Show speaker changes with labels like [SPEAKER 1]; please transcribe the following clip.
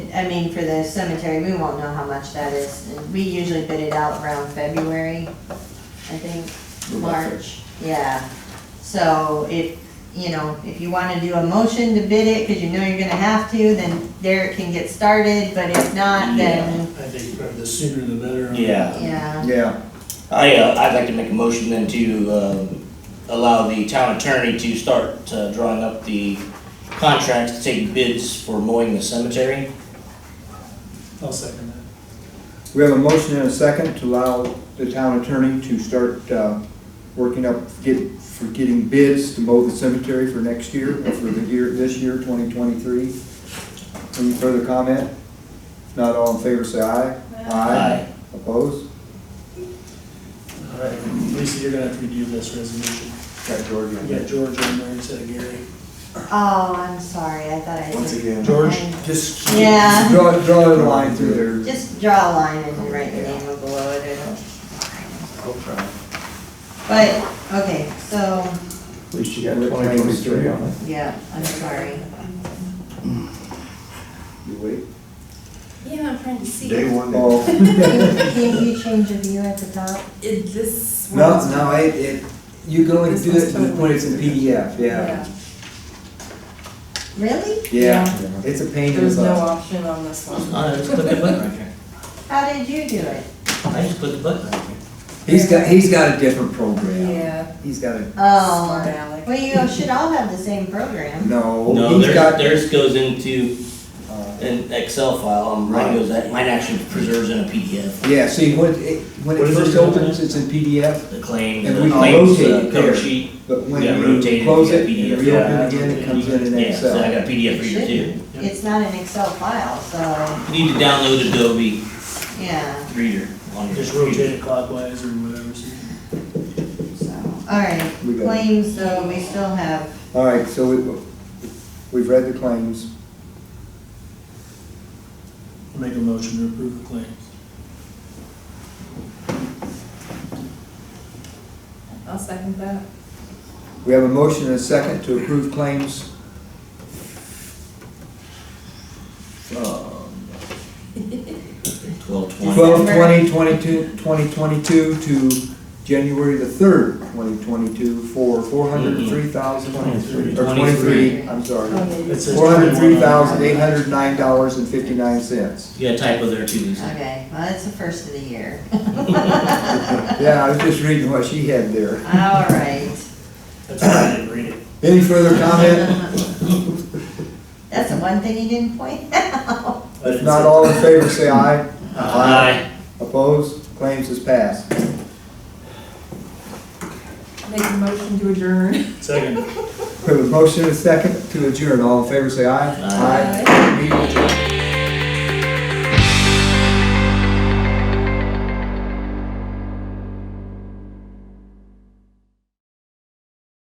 [SPEAKER 1] I mean, for the cemetery, we won't know how much that is. And We usually bid it out around February, I think, March, yeah. So if, you know, if you wanna do a motion to bid it, cause you know you're gonna have to, then Derek can get started, but if not,
[SPEAKER 2] Yeah.
[SPEAKER 1] then,
[SPEAKER 3] I think probably the sooner the better.
[SPEAKER 2] Yeah,
[SPEAKER 1] yeah.
[SPEAKER 4] Yeah,
[SPEAKER 2] I, uh, I'd like to make a motion then to, um, allow the town attorney to start, uh, drawing up the contracts to take bids for mowing the cemetery.
[SPEAKER 3] I'll second that.
[SPEAKER 4] we have a motion and a second to allow the town attorney to start, uh, working up, get, for getting bids to mow the cemetery for next year, or for the year, this year, twenty twenty-three. Any further comment? Not all in favor, say aye.
[SPEAKER 2] Aye.
[SPEAKER 4] Opposed?
[SPEAKER 3] All right, Lisa, you're gonna have to redo this resolution.
[SPEAKER 4] Got George on
[SPEAKER 3] You got
[SPEAKER 4] that.
[SPEAKER 3] George on there instead of Gary.
[SPEAKER 1] Oh, I'm sorry, I thought I.
[SPEAKER 5] Once
[SPEAKER 1] did-
[SPEAKER 5] again.
[SPEAKER 3] George?
[SPEAKER 1] I-
[SPEAKER 5] Just.
[SPEAKER 1] Yeah,
[SPEAKER 4] Draw, draw a line through there.
[SPEAKER 1] just draw a line and write the name of below it, it'll-
[SPEAKER 5] I'll try.
[SPEAKER 2] Oh,
[SPEAKER 1] but, okay, so,
[SPEAKER 5] At least you got twenty twenty-three on it.
[SPEAKER 1] yeah, I'm sorry.
[SPEAKER 4] You wait.
[SPEAKER 6] Yeah, I'm trying to see.
[SPEAKER 5] Day one.
[SPEAKER 4] Oh,
[SPEAKER 1] Can you change the view at the top?
[SPEAKER 6] It, this
[SPEAKER 4] no,
[SPEAKER 6] one's-
[SPEAKER 4] no, it, it, you go and
[SPEAKER 6] This
[SPEAKER 4] do
[SPEAKER 6] one's
[SPEAKER 4] it when it's in PDF, yeah.
[SPEAKER 1] Really?
[SPEAKER 4] Yeah, it's a pain in the
[SPEAKER 6] There's no
[SPEAKER 4] butt.
[SPEAKER 6] option on this
[SPEAKER 4] Uh,
[SPEAKER 6] one.
[SPEAKER 2] I just click the button right here.
[SPEAKER 1] How did you do it?
[SPEAKER 2] I just click the button right here.
[SPEAKER 4] He's got, he's got a different program.
[SPEAKER 6] Yeah.
[SPEAKER 4] He's got a,
[SPEAKER 1] Oh,
[SPEAKER 6] Smart aleck.
[SPEAKER 1] well, you should all have the same program.
[SPEAKER 4] no,
[SPEAKER 2] No,
[SPEAKER 4] he's
[SPEAKER 2] theirs,
[SPEAKER 4] got,
[SPEAKER 2] theirs goes into
[SPEAKER 4] uh,
[SPEAKER 2] an Excel file, and mine goes, mine actually preserves in a PDF,
[SPEAKER 4] yeah, see, when it, when
[SPEAKER 3] What
[SPEAKER 4] it
[SPEAKER 3] is
[SPEAKER 4] first
[SPEAKER 3] it called?
[SPEAKER 4] opens, it's in PDF,
[SPEAKER 2] the claim,
[SPEAKER 4] And
[SPEAKER 2] the
[SPEAKER 4] we can
[SPEAKER 2] claims,
[SPEAKER 4] rotate
[SPEAKER 2] the
[SPEAKER 4] it
[SPEAKER 2] cover
[SPEAKER 4] there.
[SPEAKER 2] sheet.
[SPEAKER 4] but when
[SPEAKER 2] Yeah,
[SPEAKER 4] you
[SPEAKER 2] rotated,
[SPEAKER 4] close
[SPEAKER 2] you
[SPEAKER 4] it
[SPEAKER 2] got
[SPEAKER 4] and
[SPEAKER 2] PDF.
[SPEAKER 4] reopen again, it comes in in
[SPEAKER 2] Yeah, so I
[SPEAKER 4] Excel.
[SPEAKER 2] got a PDF reader too.
[SPEAKER 1] It's not an Excel file, so,
[SPEAKER 2] You need to download Adobe
[SPEAKER 1] yeah,
[SPEAKER 2] Reader on your
[SPEAKER 3] Just
[SPEAKER 2] computer.
[SPEAKER 3] rotate it clockwise or whatever. so-
[SPEAKER 1] so, all right.
[SPEAKER 4] We got it.
[SPEAKER 1] Claims, so we still have,
[SPEAKER 4] All right, so we, we've read the claims,
[SPEAKER 3] Make a motion to approve the claims.
[SPEAKER 6] I'll second that.
[SPEAKER 4] we have a motion and a second to approve claims.
[SPEAKER 2] Uh, Twelve twenty.
[SPEAKER 4] Twelve twenty twenty-two, twenty twenty-two to January the third, twenty twenty-two, for four hundred and three thousand, or twenty-three, I'm
[SPEAKER 6] Oh,
[SPEAKER 4] sorry.
[SPEAKER 3] It says
[SPEAKER 4] Four hundred three
[SPEAKER 3] 21 on
[SPEAKER 4] thousand eight hundred nine dollars and fifty-nine cents.
[SPEAKER 2] You got a typo there too, Lisa.
[SPEAKER 1] okay, well, it's the first of the year.
[SPEAKER 4] Yeah, I was just reading what she had there.
[SPEAKER 1] All right.
[SPEAKER 3] That's why I didn't read it.
[SPEAKER 4] Any further comment?
[SPEAKER 1] That's the one thing you didn't point out.
[SPEAKER 3] I
[SPEAKER 4] If
[SPEAKER 3] didn't
[SPEAKER 4] not
[SPEAKER 3] see-
[SPEAKER 4] all in favor, say aye.
[SPEAKER 2] Aye.
[SPEAKER 4] Opposed? Claims is passed.
[SPEAKER 6] Make a motion to adjourn.
[SPEAKER 3] Second.
[SPEAKER 4] We have a motion and a second to adjourn. All in favor, say aye.
[SPEAKER 2] Aye.
[SPEAKER 4] Meeting adjourned.